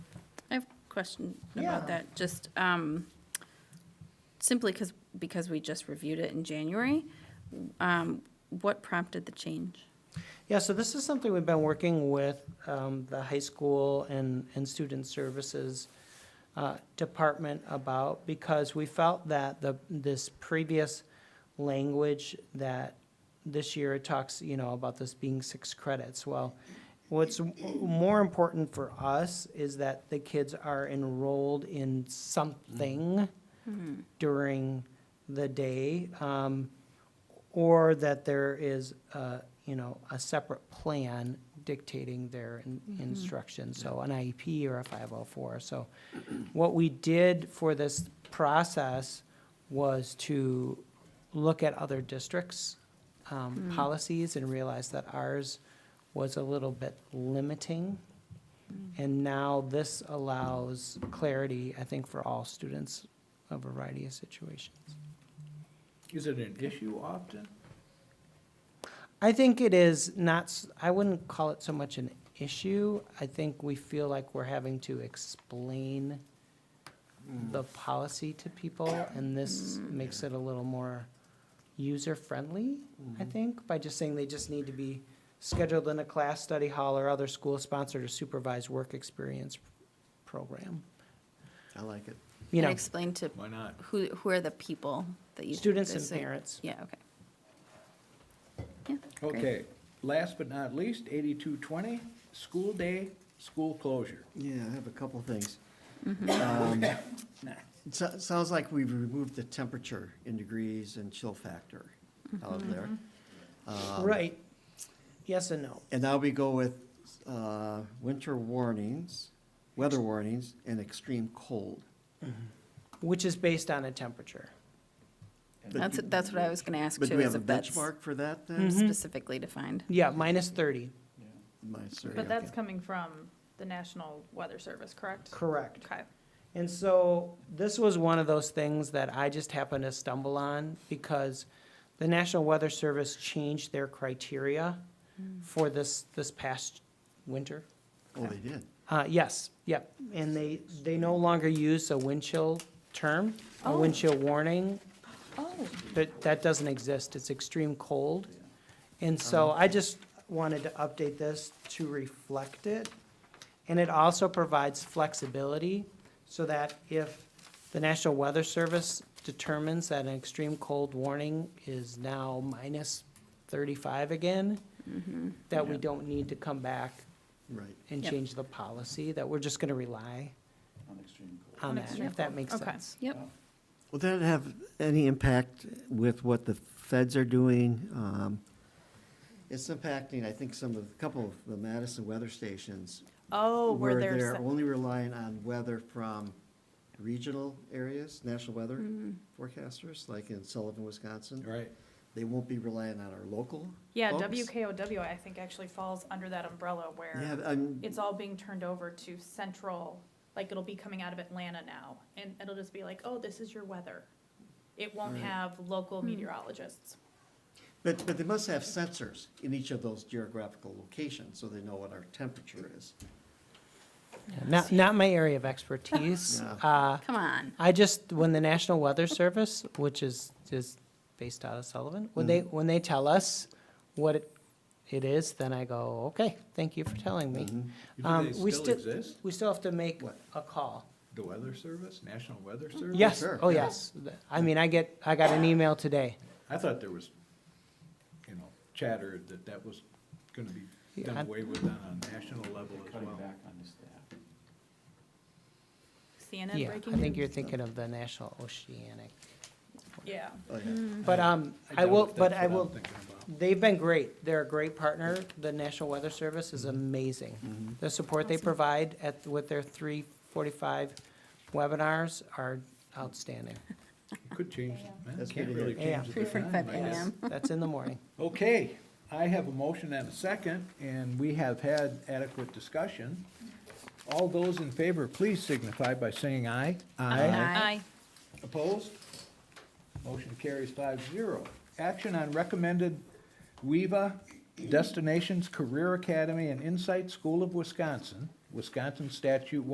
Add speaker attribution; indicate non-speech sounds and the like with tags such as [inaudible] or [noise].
Speaker 1: question
Speaker 2: Yeah.
Speaker 1: about that, just um, simply because, because we just reviewed it in January. um, What prompted the change?
Speaker 2: Yeah, so this is something we've been working with um, the high school and, and student services uh, department about because we felt that the, this previous language that this year it talks, you know, about this being six credits. Well, what's m- more important for us is that the kids are enrolled in something during the day. Um, or that there is, uh, you know, a separate plan dictating their in- instruction, so an IEP or a 504. So what we did for this process was to look at other districts' um, policies and realize that ours was a little bit limiting. And now this allows clarity, I think, for all students, a variety of situations.
Speaker 3: Is it an issue often?
Speaker 2: I think it is not, s- I wouldn't call it so much an issue. I think we feel like we're having to explain the policy to people, and this makes it a little more user-friendly, I think, by just saying they just need to be scheduled in a class, study hall, or other school-sponsored or supervised work experience program.
Speaker 4: I like it.
Speaker 2: You
Speaker 1: And
Speaker 2: know,
Speaker 1: Explain to
Speaker 3: Why not?
Speaker 1: who, who are the people that you.
Speaker 2: students and
Speaker 1: this-
Speaker 2: parents.
Speaker 1: Yeah, okay. Yeah, great.
Speaker 3: Okay, last but not least, eighty-two twenty, school day, school closure.
Speaker 4: Yeah, I have a couple things. [laughs]
Speaker 5: Mm-hmm.
Speaker 4: Um, it so- Sounds like we've removed the temperature in degrees and chill factor out
Speaker 5: Mm-hmm.
Speaker 4: there. Um,
Speaker 2: Right. Yes and no.
Speaker 4: And now we go with uh, winter warnings, weather warnings, and extreme cold.
Speaker 2: Which is based on a temperature.
Speaker 4: But
Speaker 1: That's,
Speaker 4: do-
Speaker 1: that's what I was going to ask
Speaker 4: But do
Speaker 1: too,
Speaker 4: we
Speaker 1: is
Speaker 4: have a
Speaker 1: if that's
Speaker 4: benchmark for that then?
Speaker 2: Mm-hmm.
Speaker 1: specifically defined.
Speaker 2: Yeah, minus 30.
Speaker 4: My survey,
Speaker 5: Mm-hmm. But that's
Speaker 4: okay.
Speaker 5: coming from the National Weather Service, correct?
Speaker 2: Correct.
Speaker 5: Okay.
Speaker 2: And so this was one of those things that I just happened to stumble on because the National Weather Service changed their criteria for this, this past winter.
Speaker 4: Oh, they did.
Speaker 2: Uh, yes, yep, and they, they no longer use a wind chill term, a wind chill warning.
Speaker 1: Oh,
Speaker 2: That, that doesn't exist, it's extreme cold. And so I just wanted to update this to reflect it. And it also provides flexibility so that if the National Weather Service determines that an extreme cold warning is now minus thirty-five again, that we don't need to come back
Speaker 4: Right.
Speaker 2: and
Speaker 1: Yep.
Speaker 2: change the policy, that we're just gonna rly on
Speaker 5: On
Speaker 2: that,
Speaker 5: extreme
Speaker 2: if that
Speaker 5: cold.
Speaker 2: makes
Speaker 5: Okay.
Speaker 2: sense.
Speaker 1: Yep.
Speaker 4: Will that have any impact with what the feds are doing? Um, It's impacting, I think, some of, a couple of the Madison weather stations
Speaker 5: Oh, where
Speaker 4: where
Speaker 5: there's,
Speaker 4: they're only relying on weather from regional areas, national weather forecasters, like in Sullivan, Wisconsin.
Speaker 3: Right.
Speaker 4: They won't be relying on our local
Speaker 5: yeah,
Speaker 4: folks.
Speaker 5: WKOW, I think, actually falls under that umbrella
Speaker 4: Yeah,
Speaker 5: where
Speaker 4: I'm,
Speaker 5: it's all being turned over to central, like it'll be coming out of Atlanta now. And it'll just be like, oh, this is your weather. It won't
Speaker 4: Right.
Speaker 5: have
Speaker 2: Hmm.
Speaker 5: local meteorologists.
Speaker 4: but, but they must have sensors in each of those geographical locations, so they know what our temperature is.
Speaker 2: Yeah, Not, not my area of expertise.
Speaker 4: No.
Speaker 2: Uh,
Speaker 1: Come on.
Speaker 2: I just, when the National Weather Service, which is, is based out of Sullivan, when they,
Speaker 4: Mm.
Speaker 2: when they tell us what it, it is, then I go, okay, thank you for telling me.
Speaker 4: Mhm.
Speaker 2: Um,
Speaker 3: Do
Speaker 2: we
Speaker 3: they still
Speaker 2: still-
Speaker 3: exist?
Speaker 2: We still have to make
Speaker 4: What?
Speaker 2: a call.
Speaker 3: The Weather Service, National Weather Service?
Speaker 2: Yes,
Speaker 4: sure,
Speaker 2: oh,
Speaker 4: yeah.
Speaker 2: yes. I mean, I get, I got an email today.
Speaker 3: I thought there was, you know, chatter that that was gonna be done
Speaker 2: Yeah.
Speaker 3: away with on a national level as well.
Speaker 5: CNN
Speaker 2: Yeah,
Speaker 5: breaking
Speaker 2: I think you're
Speaker 5: news.
Speaker 2: thinking of the National Oceanic.
Speaker 5: Yeah.
Speaker 4: Oh, yeah.
Speaker 5: Mm-hmm.
Speaker 2: But, um, I
Speaker 3: doubt
Speaker 2: will,
Speaker 3: if
Speaker 2: but
Speaker 3: that's
Speaker 2: I
Speaker 3: what I'm
Speaker 2: will,
Speaker 3: thinking about.
Speaker 2: They've been great. They're a great partner. The National Weather Service is amazing. The support they provide at, with their three forty-five webinars are outstanding.
Speaker 3: You Could change, man,
Speaker 4: That's
Speaker 3: can't
Speaker 4: good to
Speaker 3: really
Speaker 4: hear.
Speaker 2: Yeah.
Speaker 3: change
Speaker 1: Three
Speaker 3: the
Speaker 1: forty-five
Speaker 3: time, I guess.
Speaker 1: AM.
Speaker 2: That's in the morning.
Speaker 3: Okay, I have a motion and a second, and we have had adequate discussion. All those in favor, please signify by saying aye.
Speaker 1: Aye.
Speaker 3: Opposed? Motion carries five zero. Action on recommended WEVA Destinations Career Academy and Insight School of Wisconsin, Wisconsin Statute